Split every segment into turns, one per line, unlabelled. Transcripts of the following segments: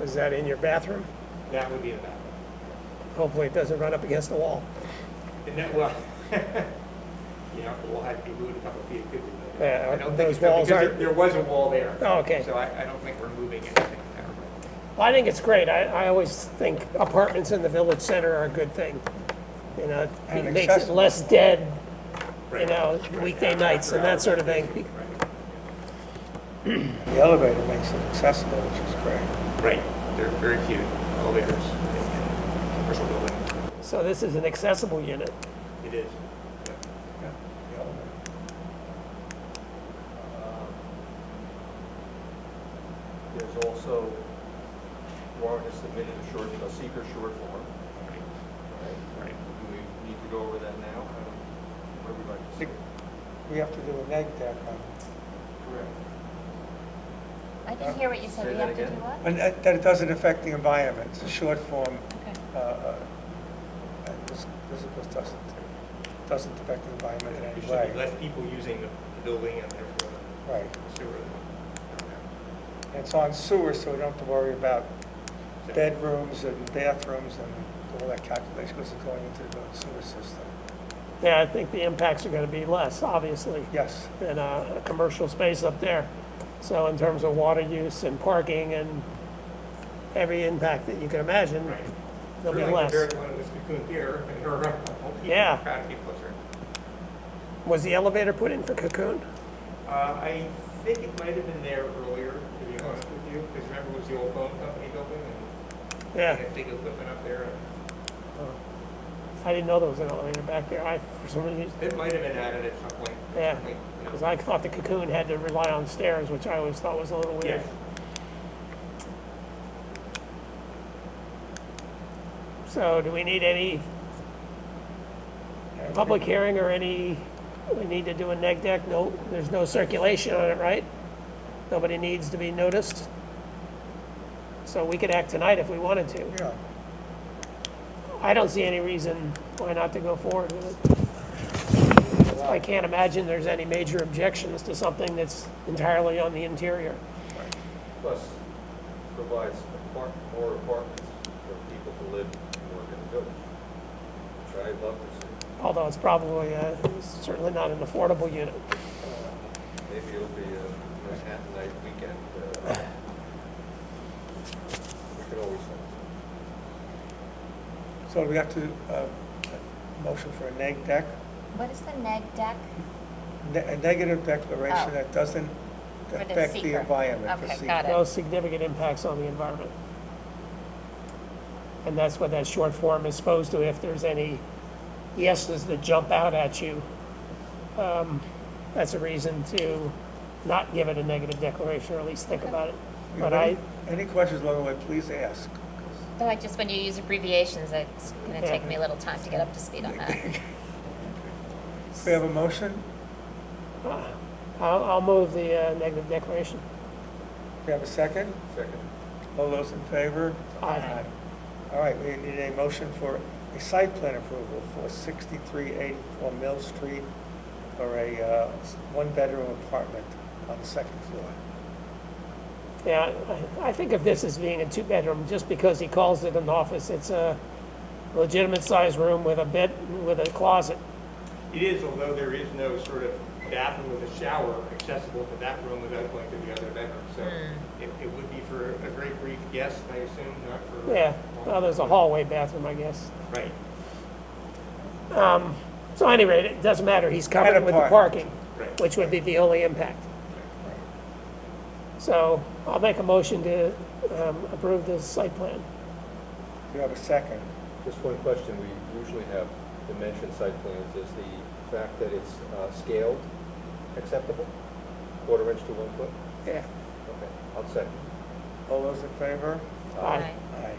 Is that in your bathroom?
That would be a bathroom.
Hopefully it doesn't run up against the wall.
And that, well, yeah, we'll have to be moved a couple feet, could we?
Yeah, uh,
I don't think
those
it's done,
walls
because
aren't-
there- There was a wall there.
Oh, okay.
So I, I don't think we're moving anything there.
Well, I think it's great. I, I always think apartments in the village center are a good thing. You know,
And
it makes it
accessible.
less dead, you
Right.
know, weekday nights and that sort of thing.
The elevator makes it accessible, which is great.
Right, there are very few elevators in commercial buildings.
So this is an accessible unit.
It is.
Yeah, the elevator.
There's also, Warren has submitted a short, a seeker short form.
Right, right.
Do we need to go over that now? I don't- What do we like to say?
We have to do a neg deck on,
Correct.
I didn't hear what you said.
Say
We
that
have to do
again.
what?
and that that it doesn't affect the environment, it's a short form,
Okay.
uh, uh, and this, this of course doesn't, doesn't affect the environment in
There
any
should be
way.
less people using the building and therefore
Right,
the sewer. than-
And it's on sewer, so we don't have to worry about bedrooms and bathrooms and all that calculation goes going into the sewer system.
Yeah, I think the impacts are gonna be less, obviously,
Yes,
than a, a commercial space up there. So in terms of water use and parking and every impact that you can imagine,
Right.
there'll be
Really
less.
compared to when it was cocoon theater and there were a couple people,
Yeah.
crowd of people there.
Was the elevator put in for Cocoon?
Uh, I think it might have been there earlier, to be honest with you, because remember it was the old phone company building and they
Yeah,
had big equipment up there.
I didn't know there was an elevator back there. I, for some reason,
It might have been added at some point.
Yeah.
Like, you know.
because I thought the Cocoon had to rely on stairs, which I always thought was a little weird.
Yes.
So do we need any public hearing or any, we need to do a neg deck? No, there's no circulation on it, right? Nobody needs to be noticed? So we could act tonight if we wanted to.
yeah.
I don't see any reason why not to go forward with it. I can't imagine there's any major objections to something that's entirely on the interior.
Plus, provides apart- more apartments for people to live and work in the village, which I'd love to see.
Although it's probably, uh, certainly not an affordable unit.
Maybe it'll be a Manhattanite weekend. uh, We could always,
So we have to, uh, motion for a neg deck?
What is the neg deck?
Ne- A negative declaration
Oh.
that doesn't
For the
affect the
seeker.
environment. for
Okay,
seeker.
got it.
No significant impacts on the environment. And that's what that short form is supposed to, if there's any yeses that jump out at you, um, that's a reason to not give it a negative declaration, or at least think about it.
You have
But I,
any- Any questions along the way, please ask.
Oh, I just, when you use abbreviations, it's going to take me a little time to get up to speed on that.
We have a motion,
uh, I'll, I'll move the uh, negative declaration.
we have a second,
second.
all those in favor?
Aye.
All right, we need a motion for a site plan approval for 6384 Mill Street for a uh, s- one-bedroom apartment on the second floor.
Yeah, I I think of this as being a two-bedroom, just because he calls it an office. It's a legitimate-sized room with a bed, with a closet.
It is, although there is no sort of bathroom with a shower accessible to that room without going to the other bedroom. So it, it would be for a very brief guest, I assume, not for.
Yeah, well, there's a hallway bathroom, I guess.
Right.
So at any rate, it doesn't matter, he's
And a
covered with the
park.
parking,
Right.
which would be the only impact. So I'll make a motion to um, approve this site plan.
You have a second,
Just one question, we usually have dimension site plans, is the fact that it's uh, scaled acceptable? Quarter inch to one foot?
Yeah.
Okay, I'll second.
all those in favor?
Aye.
Aye.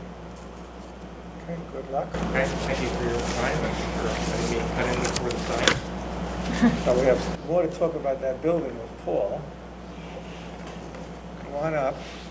Okay, good luck.
Thank thank you for your time. I'm sure I'm going to be cutting before the sign.
Now, we have more to talk about that building with Paul. Come on up.